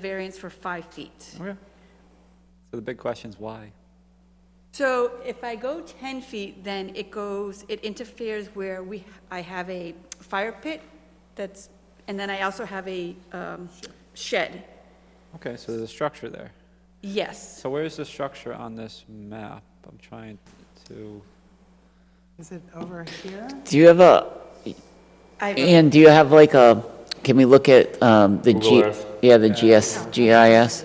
variance for five feet. Okay. So the big question is why? So if I go 10 feet, then it goes, it interferes where we, I have a fire pit that's, and then I also have a um, shed. Okay, so there's a structure there. Yes. So where's the structure on this map? I'm trying to, Is it over here? Do you have a, I Ian, do you have like a, can we look at um, the G? Google Earth. Yeah, the GS, GIS?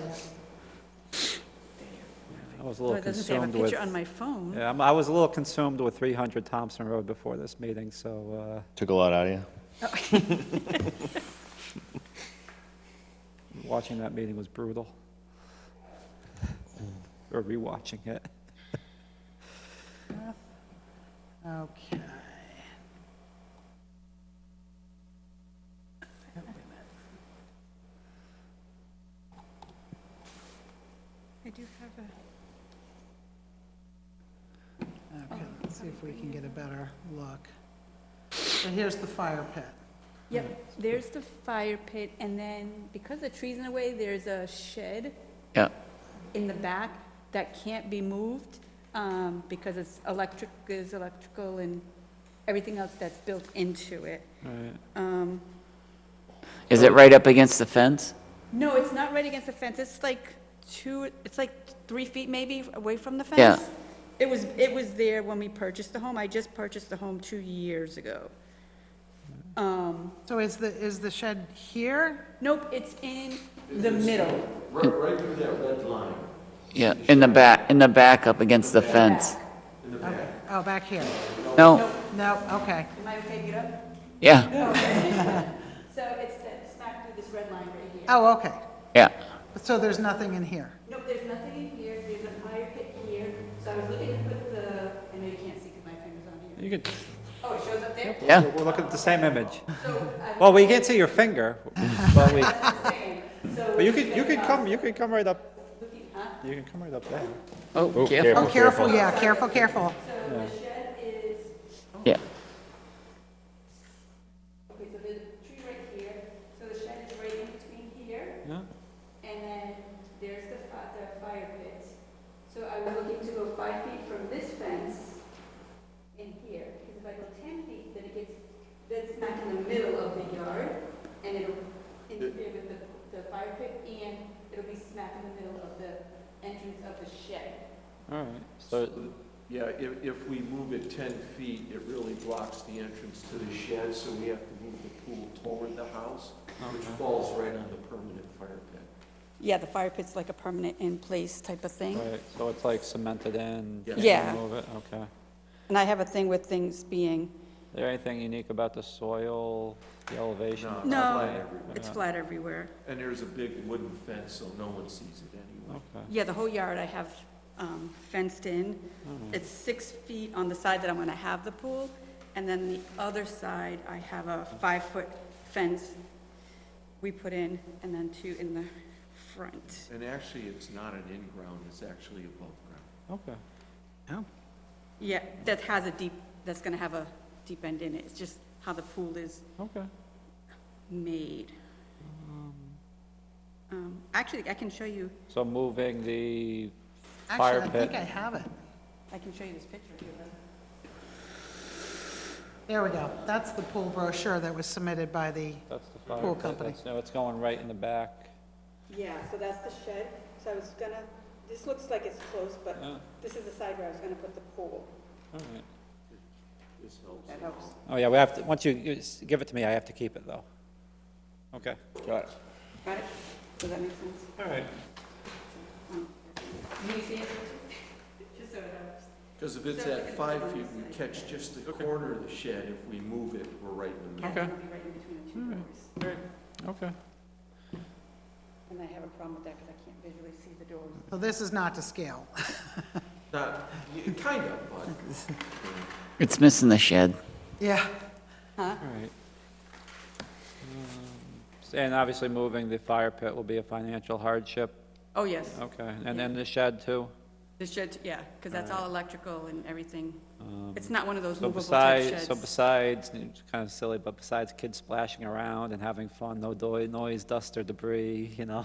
I was a Oh, little It doesn't say I have a consumed with. picture on my phone. Yeah, I'm- I was a little consumed with 300 Thompson Road before this meeting, so, Took a lot out of you. uh, watching that meeting was brutal. Or rewatching it. Okay. I do have a. Okay, let's see if we can get a better look. So here's the fire pit. Yep, there's the fire pit, and then because the tree's in the way, there's a shed Yeah, in the back that can't be moved um, because it's electric, there's electrical and everything else that's built into it. Right. Um, is it right up against the fence? No, it's not right against the fence, it's like two, it's like three feet maybe away from the fence. Yeah. It was, it was there when we purchased the home, I just purchased the home two years ago. Um, So is the, is the shed here? nope, it's in the middle. Right, right through that red line, Yeah, in the back, in the back up against the fence. Okay. Oh, back here. No, No, okay. Am I okay to get up? yeah, So it's the- smack through this red line right here. Oh, okay. yeah, So there's nothing in here? Nope, there's nothing in here, there's a fire pit here, so I was looking to put the, I know you can't see because my finger's on here. You could, Oh, it shows up there? yeah. we're looking at the same image. So, uh, Well, we can't see your finger, but we, I'm saying, so. uh, but you could, you could come, you could come right up, Looking up, you can come right up there. Oh, careful. careful. Oh, careful, yeah, careful, careful. So the shed is, oh. Yeah, okay, so there's a tree right here, so the shed is right in between here, Yeah. and then there's the fi- the fire pit. So I was looking to go five feet from this fence in here, because if I go ten feet, then it gets, that's smack in the middle of the yard, and it'll interfere with the, the fire pit, and it'll be smack in the middle of the entrance of the shed. All right, so, yeah, if, if we move it 10 feet, it really blocks the entrance to the shed, so we have to move the pool toward the house, which falls right on the permanent fire pit. Yeah, the fire pit's like a permanent in place type of thing. right, so it's like cemented in. you can't Yeah. Move it, okay. And I have a thing with things being. Is there anything unique about the soil, the elevation? No, No, it's Yeah. flat everywhere. And there's a big wooden fence, so no one sees it anyway. Okay, Yeah, the whole yard I have um, fenced in. It's six feet on the side that I'm going to have the pool, and then the other side, I have a five-foot fence we put in, and then two in the front. And actually, it's not an in-ground, it's actually above ground. okay. Yeah, that has a deep, that's going to have a deep end in it. It's just how the pool is Okay. made. Um, Actually, I can show you, So moving the fire Actually, I think I pit. have it. I can show you this picture if you want. There we go. That's the pool brochure that was submitted by the, That's the fire Pool pit, company. that's- No, it's going right in the back. Yeah, so that's the shed, so I was gonna, this looks like it's close, but Yeah. this is the side where I was gonna put the pool. All right. This helps. That helps. Oh, yeah, we have to, once you- you s- give it to me, I have to keep it, though. Okay. Got it. Got it? Does that make sense? Um, All right. Can you see it? Just so it helps. Because if it's at five feet, we catch just the corner of the shed. If we move it, we're right in the middle. Okay. It'll be right in between the two Mm-hmm. doors. Okay. And I have a problem with that because I can't visually see the doors. so this is not to scale. Not, y- kind of, but. It's missing the shed. Yeah. All right. Um, s- And obviously, moving the fire pit will be a financial hardship. Oh, yes, Okay, and then the shed, too? the shed, yeah, because that's all electrical and everything. It's not one of those Um, So movable type besides, sheds. so besides, it's kind of silly, but besides kids splashing around and having fun, no doi- noise, dust or debris, you know?